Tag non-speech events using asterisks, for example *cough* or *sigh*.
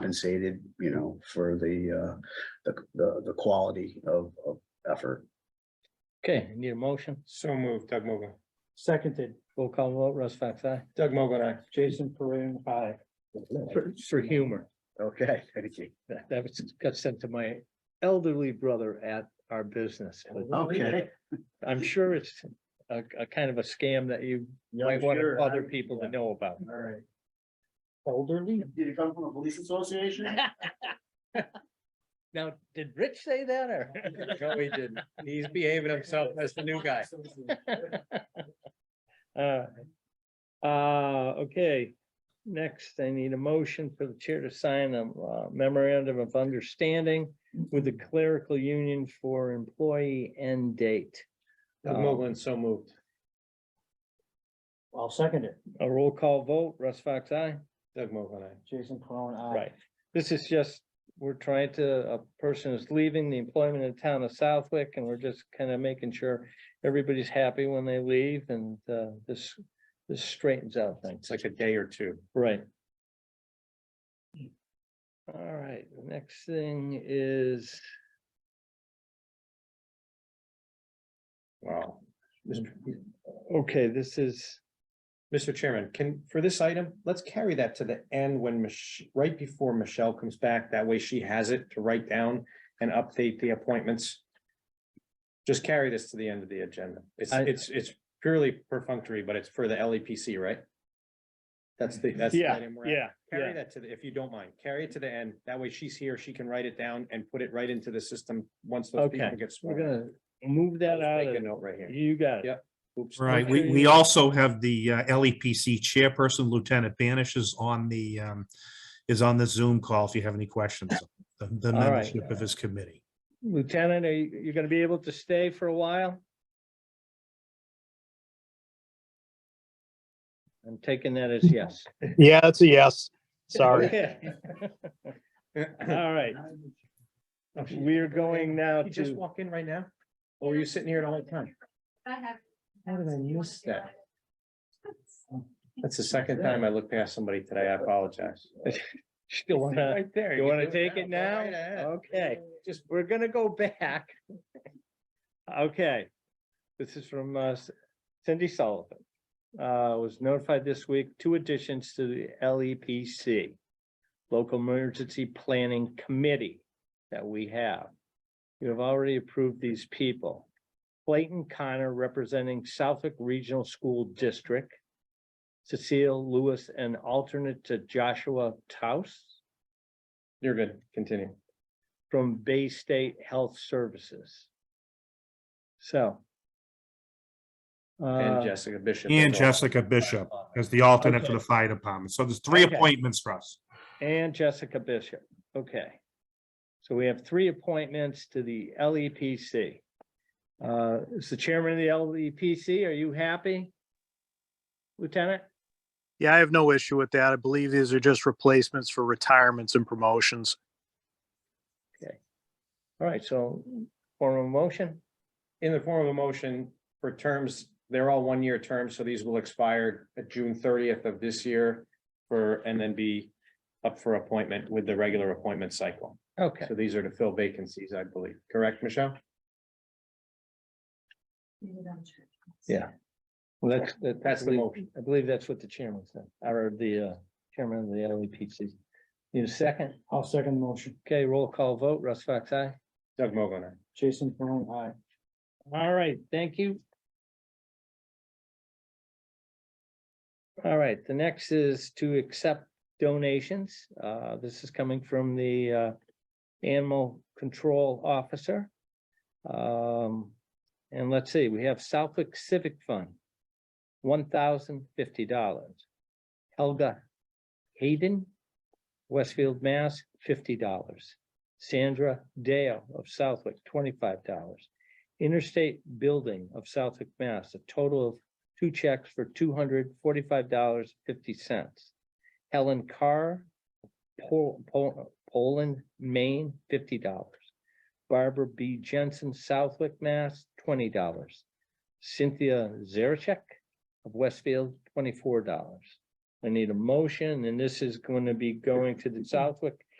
compensated, you know, for the, uh, the, the, the quality of, of effort. Okay, need a motion? So moved, Doug Mogul. Seconded, Roll call vote, Russ Fox, aye. Doug Mogul, aye. Jason Peron, aye. For, for humor. Okay, thank you. That, that was, got sent to my elderly brother at our business. but Okay. I'm sure it's a, a kind of a scam that you might want other people to know about. All right. Elderly? Did it come from a police association? Now, did Rich say that or? No, he didn't. *laughs* He's behaving himself as the new *laughs* guy. Uh, uh, okay, next, I need a motion for the chair to sign a uh, memorandum of understanding with the clerical union for employee end date. Doug Mogul, so moved. I'll second it. A roll call vote, Russ Fox, aye? Doug Mogul, aye. Jason Peron, aye. Right, this is just, we're trying to, a person is leaving the employment in town of Southwick, and we're just kind of making sure everybody's happy when they leave, and, uh, this, this straightens out things. It's like a day or two. Right. All right, the next thing is, Wow. Mr. okay, this is, Mr. Chairman, can, for this item, let's carry that to the end when Mich, right before Michelle comes back. That way she has it to write down and update the appointments. Just carry this to the end of the agenda. It's, I- it's, it's purely perfunctory, but it's for the LEPC, right? That's the, that's. the Yeah, item we're at. yeah, Carry that to the, if you don't mind, carry it to the end. That way she's here, she can write it down and put it right into the system once those Okay, people get we're sworn. gonna move that Let's out Make a of, note right here. you got it. Yep. Oops. *laughs* Right, we, Okay. we also have the uh, LEPC chairperson, Lieutenant Banish is on the, um, is on the Zoom call if you have any questions. The- The All right. membership of his committee. Lieutenant, are you, you gonna be able to stay for a while? I'm taking that as yes. Yeah, it's a yes. Sorry. Okay. *laughs* *laughs* All right, we're going now You just to, walk in right now? Or were you sitting here the whole time? I have. How did I miss that? That's the second time time I looked past somebody today. I *laughs* apologize. still wanna, there. you wanna can do it take it Go now? right ahead. Okay, just, we're gonna go back. Okay, this is from uh, Cindy Sullivan. Uh, was notified this week, two additions to the LEPC, Local Emergency Planning Committee that we have. You have already approved these people. Clayton Connor representing Southwick Regional School District. Cecile Lewis, an alternate to Joshua Taus You're good. Continue. from Bay State Health Services. So. And uh, Jessica Bishop. And as well. Jessica Bishop as the alternate for Okay. the fire department. So there's three Okay. appointments for us. And Jessica Bishop, okay. So we have three appointments to the LEPC. Uh, is the chairman of the LEPC, are you happy? Lieutenant, Yeah, I have no issue with that. I believe these are just replacements for retirements and promotions. all right, so form of motion, In the form of a motion for terms, they're all one-year terms, so these will expire at June thirtieth of this year for, and then be up for appointment with the regular appointment cycle. okay, So these are to fill vacancies, I believe. Correct, Michelle? well, that's, that- That's the motion. I believe that's what the chairman said, or the uh, chairman of the LEPC. Need a second? I'll second the motion. Okay, roll call vote, Russ Fox, aye. Doug Mogul, aye. Jason Peron, aye. All right, thank you. All right, the next is to accept donations. Uh, this is coming from the uh Animal Control Officer. Um, and let's see, we have Southwick Civic Fund, one thousand fifty dollars. Helga Hayden, Westfield, Mass, fifty dollars. Sandra Dale of Southwick, twenty-five dollars. Interstate Building of Southwick, Mass, a total of two checks for two hundred forty-five dollars fifty cents. Helen Carr, Pol- Pol- Poland, Maine, fifty dollars. Barbara B. Jensen, Southwick, Mass, twenty dollars. Cynthia Zarachek of Westfield, twenty-four dollars. I need a motion, and this is going to be going to the Southwick